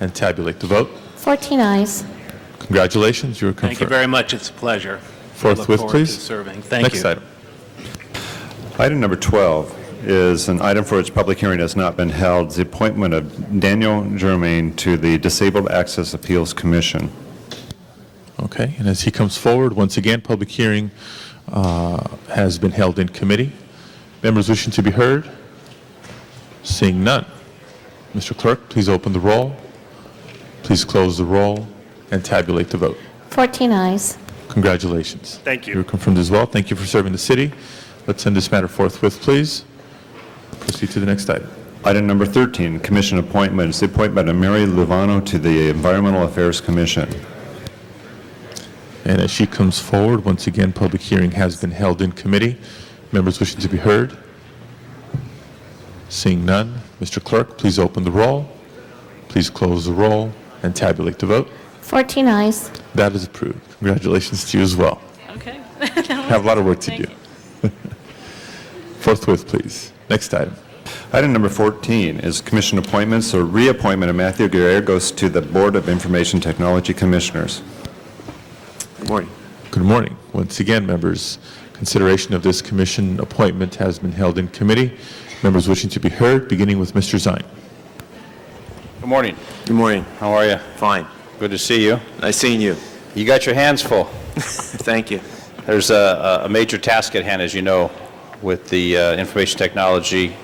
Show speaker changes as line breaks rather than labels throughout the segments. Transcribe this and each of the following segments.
and tabulate the vote.
14 eyes.
Congratulations, you're confirmed.
Thank you very much. It's a pleasure.
Forthwith,
Look forward to
please.
serving. Thank you.
Next item.
Item number 12 is an item for which public hearing has not been held, the appointment of Daniel Germain to the Disabled Access Appeals Commission.
Okay, and as he comes forward, once again, public hearing uh, has been held in committee. Members wishing to be heard? Seeing none. Mr. Clerk, please open the roll, please close the roll, and tabulate the vote.
14 eyes.
Congratulations.
Thank you.
You're confirmed as well. Thank you for serving the city. Let's send this matter forthwith, please. Proceed to the next item.
Item number 13, commission appointments, the appointment of Mary Luvano to the Environmental Affairs Commission.
And as she comes forward, once again, public hearing has been held in committee. Members wishing to be heard? Seeing none, Mr. Clerk, please open the roll, please close the roll, and tabulate the vote.
14 eyes.
That is approved. Congratulations to you as well.
Okay.
Have a lot of work to
Thank
do.
you.
Forthwith, please. Next item.
Item number 14 is commission appointments or reappointment of Matthew Gallegos to the Board of Information Technology Commissioners.
Good morning. Once again, members, consideration of this commission appointment has been held in committee. Members wishing to be heard, beginning with Mr. Zine.
Good morning.
Good morning.
How are you?
Fine.
Good to see you.
Nice seeing you.
You got your hands full.
Thank you.
There's a, a- a major task at hand, as you know, with the uh, information technology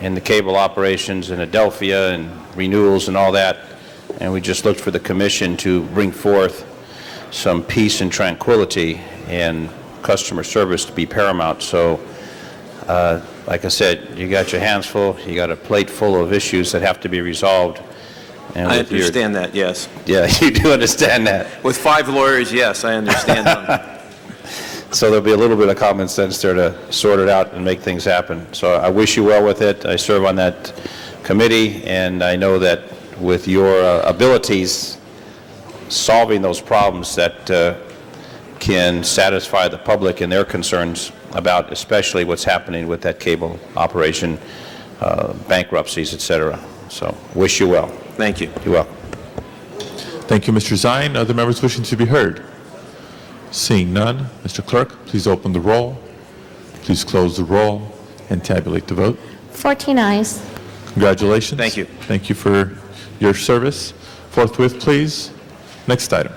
and the cable operations in Adelphia and renewals and all that. And we just looked for the commission to bring forth some peace and tranquility and customer service to be paramount. So, uh, like I said, you got your hands full, you got a plate full of issues that have to be resolved. And
I
with your-
understand that, yes.
Yeah, you do understand that.
With five lawyers, yes, I understand them.
So there'll be a little bit of common sense there to sort it out and make things happen. So I wish you well with it. I serve on that committee, and I know that with your uh, abilities, solving those problems that uh, can satisfy the public and their concerns about especially what's happening with that cable operation, uh, bankruptcies, et cetera. So wish you well.
Thank you.
You're welcome.
Thank you, Mr. Zine. Other members wishing to be heard? Seeing none, Mr. Clerk, please open the roll, please close the roll, and tabulate the vote.
14 eyes.
Congratulations.
Thank you.
Thank you for your service. Forthwith, please. Next item.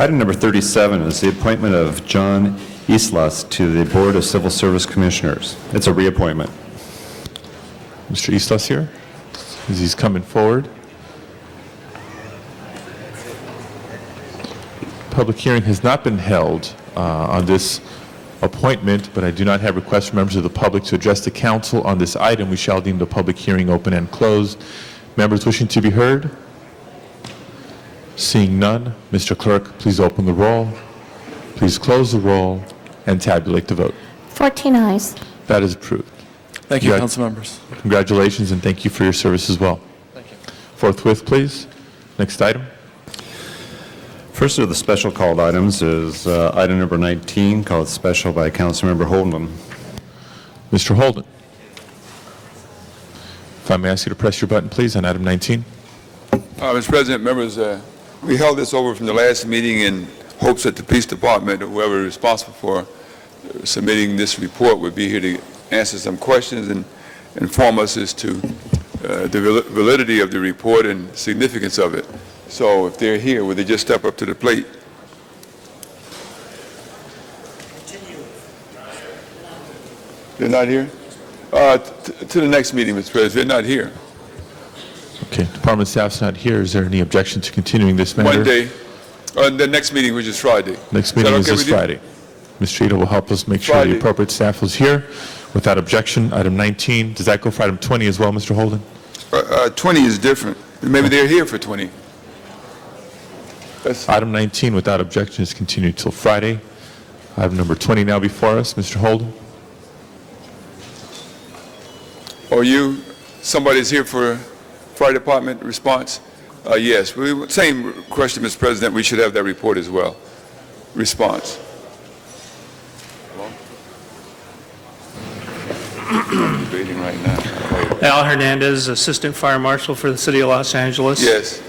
Item number 37 is the appointment of John Islas to the Board of Civil Service Commissioners. It's a reappointment.
Mr. Islas here, as he's coming forward. Public hearing has not been held uh, on this appointment, but I do not have requests from members of the public to address the council on this item. We shall deem the public hearing open and closed. Members wishing to be heard? Seeing none, Mr. Clerk, please open the roll, please close the roll, and tabulate the vote.
14 eyes.
That is approved.
Thank you,
Yeah.
council members.
Congratulations, and thank you for your service as well. Forthwith, please. Next item.
First of the special called items is uh, item number 19, called special by Councilmember Holden.
Mr. Holden. If I may ask you to press your button, please, on item 19.
Uh, Mr. President, members, uh, we held this over from the last meeting in hopes that the police department, or whoever is responsible for submitting this report, would be here to answer some questions and inform us as to uh, the val- validity of the report and significance of it. So if they're here, would they just step up to the plate? They're not here? Uh, t- To the next meeting, Mr. President, they're not here.
Okay, department staff's not here. Is there any objection to continuing this matter?
Monday, on Uh, the next meeting, which is Friday.
Next meeting
that
is
okay
this
with you?
Friday. Ms. Trita will help us make sure the
Friday.
appropriate staff is here. Without objection, item 19. Does that go for item 20 as well, Mr. Holden?
Uh, uh, 20 is different. Maybe they're here for 20. That's,
Item 19, without objection, is continued till Friday. Item number 20 now before us. Mr. Holden?
or you, somebody's here for fire department response? Uh, yes, we, same question, Mr. President, we should have that report as well. Response. Debating right now.
Al Hernandez, Assistant Fire Marshal for the City of Los Angeles.
Yes.